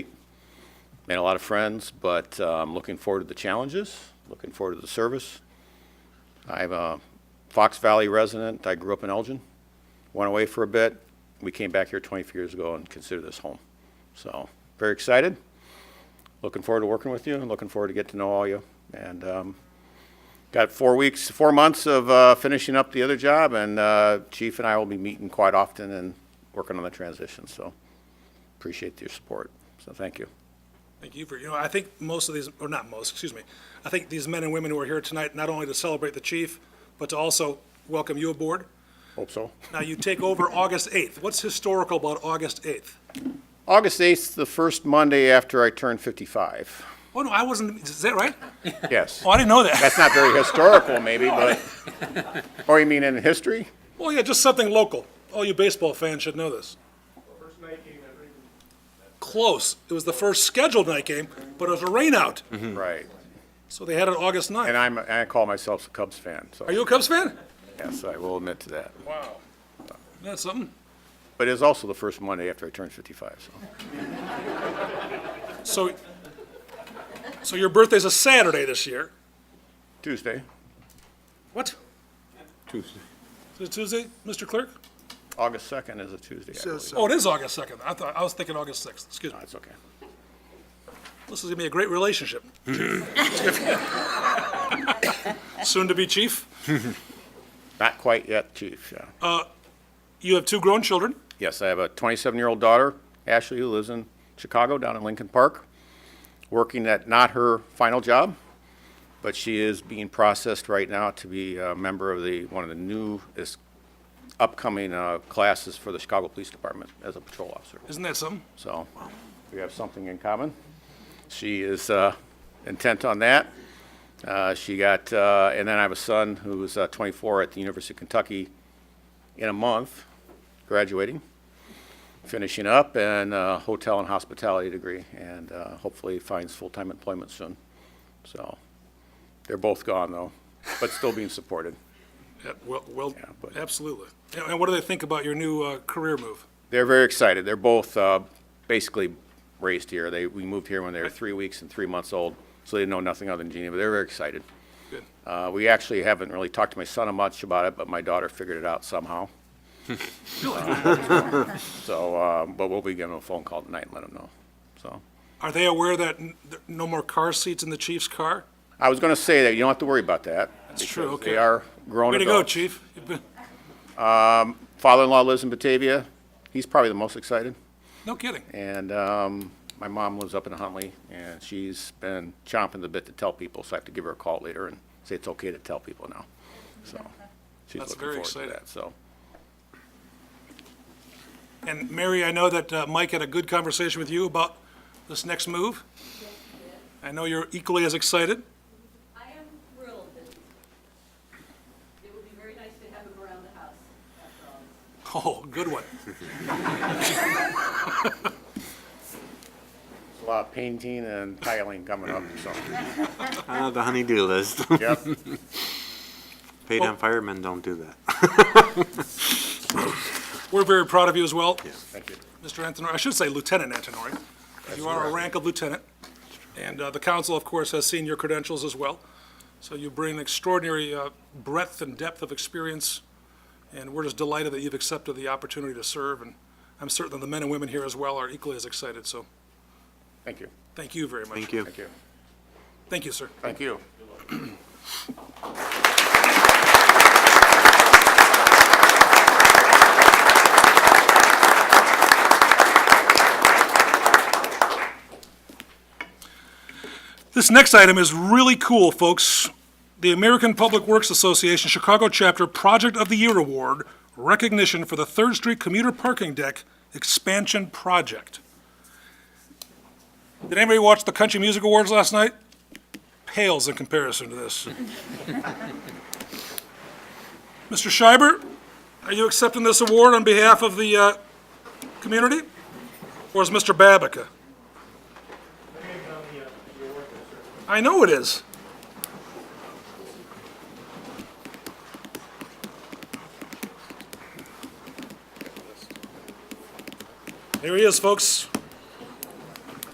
made a lot of friends, but uh, I'm looking forward to the challenges, looking forward to the service. I'm a Fox Valley resident. I grew up in Elgin, went away for a bit. We came back here 24 years ago and consider this home. So, very excited. Looking forward to working with you and looking forward to get to know all you. And um, got four weeks, four months of uh, finishing up the other job, and uh, Chief and I will be meeting quite often and working on the transition. So, appreciate your support. So, thank you. Thank you for, you know, I think most of these, or not most, excuse me, I think these men and women who are here tonight, not only to celebrate the chief, but to also welcome you aboard. Hope so. Now, you take over August 8th. What's historical about August 8th? August 8th, the first Monday after I turned 55. Oh, no, I wasn't, is that right? Yes. Oh, I didn't know that. That's not very historical, maybe, but, or you mean in history? Oh, yeah, just something local. All you baseball fans should know this. Close. It was the first scheduled night game, but it was a rainout, Right. so they had it August 9th. And I'm, I call myself a Cubs fan, so, Are you a Cubs fan? yes, I will admit to that. Wow. That's something. But it's also the first Monday after I turned 55, so. So, so your birthday's a Saturday this year? Tuesday, What? Tuesday. Is it Tuesday, Mr. Clerk? August 2nd is a Tuesday, I believe. Oh, it is August 2nd. I thought, I was thinking August 6th. Excuse me. That's okay. This is going to be a great relationship. Soon to be chief. Not quite yet, chief, yeah. You have two grown children. Yes, I have a 27-year-old daughter, Ashley, who lives in Chicago, down in Lincoln Park, working at not her final job, but she is being processed right now to be a member of the, one of the new, is upcoming uh, classes for the Chicago Police Department as a patrol officer. Isn't that something? So we have something in common. She is uh, intent on that. Uh, She got, uh, and then I have a son who's uh, 24 at the University of Kentucky in a month, graduating, finishing up, and a hotel and hospitality degree, and uh, hopefully finds full-time employment soon. So they're both gone, though, but still being supported. Yeah, well, well, Yeah, but- absolutely. And- And what do they think about your new uh, career move? They're very excited. They're both uh, basically raised here. They, we moved here when they were three weeks and three months old, so they know nothing other than Genie, but they're very excited. Good. Uh, We actually haven't really talked to my son much about it, but my daughter figured it out somehow. So, uh, but we'll be giving them a phone call tonight and let them know, so. Are they aware that n- there- no more car seats in the chief's car? I was going to say that you don't have to worry about that. That's true, because okay. They are grown Way to go, adults. chief. You've been- Father-in-law lives in Batavia. He's probably the most excited. No kidding. And um, my mom lives up in Huntley, and she's been chomping the bit to tell people, so I have to give her a call later and say it's okay to tell people now. So she's That's looking very forward to exciting. that, so. And Mary, I know that uh, Mike had a good conversation with you about this next move. I know you're equally as excited. I am thrilled that it would be very nice to have him around the house after all Oh, this. good one. A lot of painting and tiling coming up, so, I have Uh, the honeydew list. yep. Paid on firemen don't do that. We're very proud of you as well, Thank you. Mr. Antonori. I should say Lieutenant Antonori. You are a rank of lieutenant. And uh, the council, of course, has seen your credentials as well. So you bring extraordinary uh, breadth and depth of experience. And we're just delighted that you've accepted the opportunity to serve. And I'm certain the men and women here as well are equally as excited. So Thank you. thank you very much. Thank you. Thank you. Thank you, sir. Thank you. This next item is really cool, folks. The American Public Works Association Chicago Chapter Project of the Year Award, recognition for the Third Street Commuter Parking Deck Expansion Project. Did anybody watch the Country Music Awards last night? Pales in comparison to this. Mr. Schreiber, are you accepting this award on behalf of the uh, community? Or is Mr. Babica? I know it is. There he is, folks.